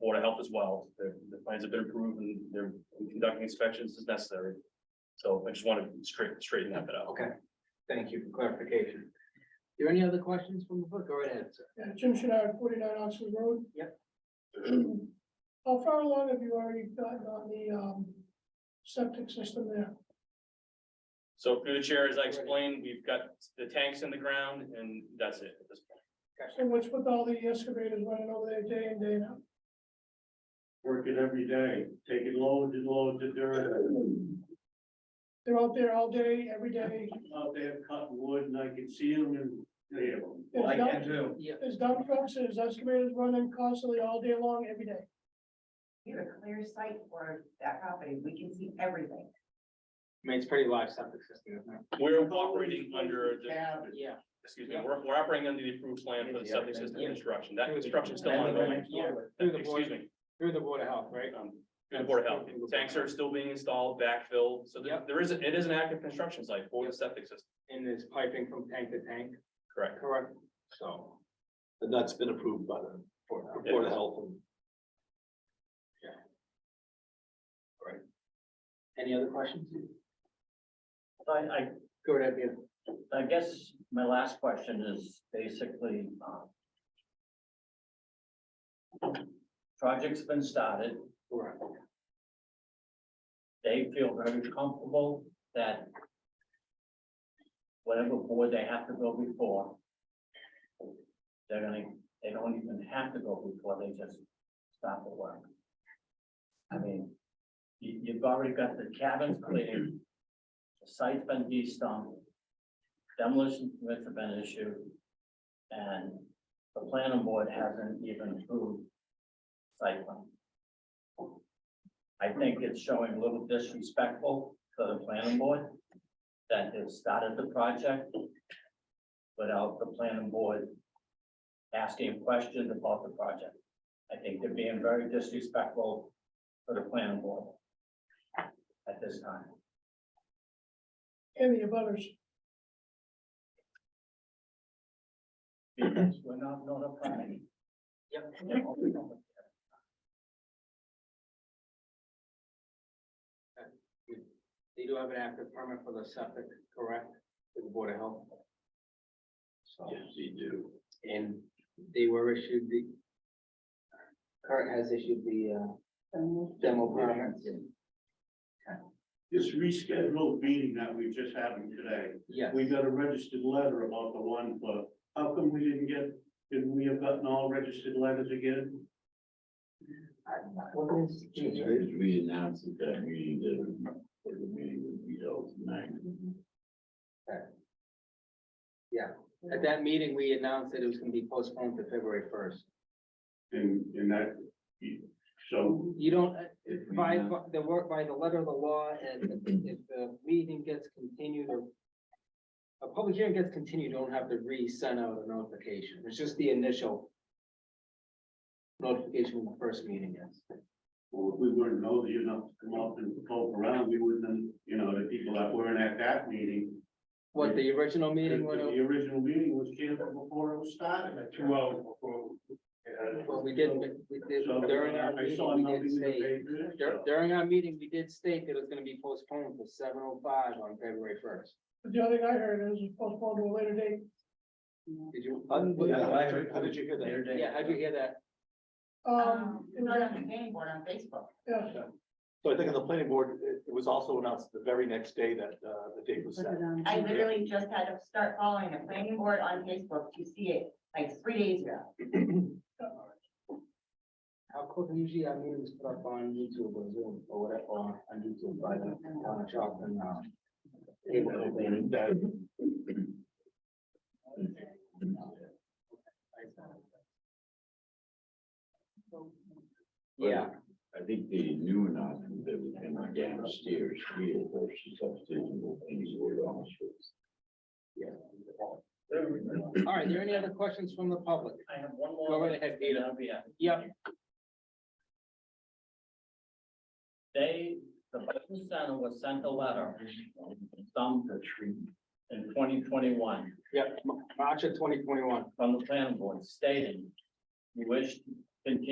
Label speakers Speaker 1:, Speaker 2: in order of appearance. Speaker 1: Board of Health as well. Their, the plans have been approved and they're conducting inspections as necessary. So I just want to straight, straighten that bit out.
Speaker 2: Okay, thank you for clarification. There any other questions from the book? Go right ahead, sir.
Speaker 3: Yeah, Jim Shinard, forty-nine Oxford Road.
Speaker 2: Yep.
Speaker 3: How far along have you already gotten on the, um, septic system there?
Speaker 1: So through the chair, as I explained, we've got the tanks in the ground and that's it at this point.
Speaker 3: So what's with all the excavators running over there day in, day out?
Speaker 4: working every day, taking loads and loads of dirt.
Speaker 3: They're out there all day, every day.
Speaker 4: Out there cutting wood and I can see them and they have them.
Speaker 3: There's dump-
Speaker 2: do. Yeah,
Speaker 3: There's dump trucks, there's excavators running constantly all day long, every day.
Speaker 5: We have a clear sight for that property. We can see everything.
Speaker 2: I mean, it's pretty large septic system, isn't it?
Speaker 1: We're operating under the
Speaker 4: Cab,
Speaker 2: Yeah.
Speaker 1: excuse me, we're, we're operating under the approved plan for the septic system construction, that construction's still ongoing.
Speaker 2: Yeah, through the
Speaker 1: Excuse
Speaker 2: board,
Speaker 1: me,
Speaker 2: through the board of health, right?
Speaker 1: um, through the board of health, tanks are still being installed, backfilled, so there,
Speaker 2: Yep.
Speaker 1: there is, a- it is an active construction site for the septic system,
Speaker 2: And there's piping from tank to tank,
Speaker 1: correct?
Speaker 2: correct?
Speaker 6: So. And that's been approved by the Board
Speaker 1: Yeah.
Speaker 6: Board of Health and
Speaker 2: Any other questions?
Speaker 7: I,
Speaker 2: Go right ahead, Peter.
Speaker 7: I, I guess my last question is basically, um. uh, Project's been started,
Speaker 2: Correct.
Speaker 7: they feel very comfortable that. Whatever board they have to go before. They're gonna, they don't even have to go before, they just start the work. I mean, you, you've already got the cabins cleared, the site's been de-stumped. Demolition permits have been issued. And the planning board hasn't even approved site plan. I think it's showing a little disrespectful to the planning board that has started the project without the planning board asking questions about the project. I think they're being very disrespectful to the planning board at this time.
Speaker 3: And the abutters,
Speaker 7: Because we're not notified.
Speaker 2: Yep. They do have an active permit for the septic, correct? Through the board of health. So.
Speaker 6: yes, you do.
Speaker 2: And they were issued the. Kurt has issued the uh demo permits.
Speaker 4: This rescheduled meeting that we just having today,
Speaker 2: Yes,
Speaker 4: we got a registered letter about the one, but how come we didn't get, did we have gotten all registered letters again?
Speaker 2: what is?
Speaker 6: we announced at that meeting that the meeting would be held tonight.
Speaker 2: At that meeting, we announced that it was gonna be postponed to February first.
Speaker 4: And, and that, so
Speaker 2: You don't, uh,
Speaker 6: If we
Speaker 2: by
Speaker 6: announce-
Speaker 2: the work, by the letter of the law, and if the meeting gets continued or. A public hearing gets continued, you don't have to re-send out a notification. It's just the initial. Notification when the first meeting is.
Speaker 4: well, if we weren't nosy enough to come up and poke around, we wouldn't, have, you know, the people that weren't at that meeting.
Speaker 2: What, the original meeting,
Speaker 4: The
Speaker 2: when
Speaker 4: the original meeting was canceled before it was started, two hours before. uh,
Speaker 2: Well, we did, we- we did,
Speaker 4: So,
Speaker 2: during our
Speaker 4: I saw
Speaker 2: meeting, we
Speaker 4: nothing
Speaker 2: did
Speaker 4: in the
Speaker 2: state,
Speaker 4: paper,
Speaker 2: dur-
Speaker 4: so-
Speaker 2: during our meeting, we did state that it was gonna be postponed to seven oh five on February first.
Speaker 3: but the other thing I heard is it's postponed to a later date.
Speaker 2: Did you?
Speaker 6: How did you hear that?
Speaker 2: Yeah, how'd you hear that?
Speaker 3: Um,
Speaker 5: It's not on the planning board on Facebook.
Speaker 3: yeah,
Speaker 6: So I think on the planning board, it, it was also announced the very next day that, uh, the date was set.
Speaker 5: I literally just had to start following the planning board on Facebook to see it like three days ago.
Speaker 2: How quick, usually our meetings put up on YouTube or Zoom or whatever, or on YouTube by the town of Charlton, uh. Able to open
Speaker 6: That-
Speaker 2: Yeah,
Speaker 8: I think they knew not that we can downstairs here versus upstairs and all things were on.
Speaker 2: all right, there any other questions from the public?
Speaker 7: I have one more.
Speaker 2: Go right ahead, Peter.
Speaker 7: I'll be happy.
Speaker 2: Yep,
Speaker 7: They, the Biden Center was sent a letter, some in twenty twenty-one.
Speaker 2: yep, March of twenty twenty-one.
Speaker 7: from the planning board stating you wish to continue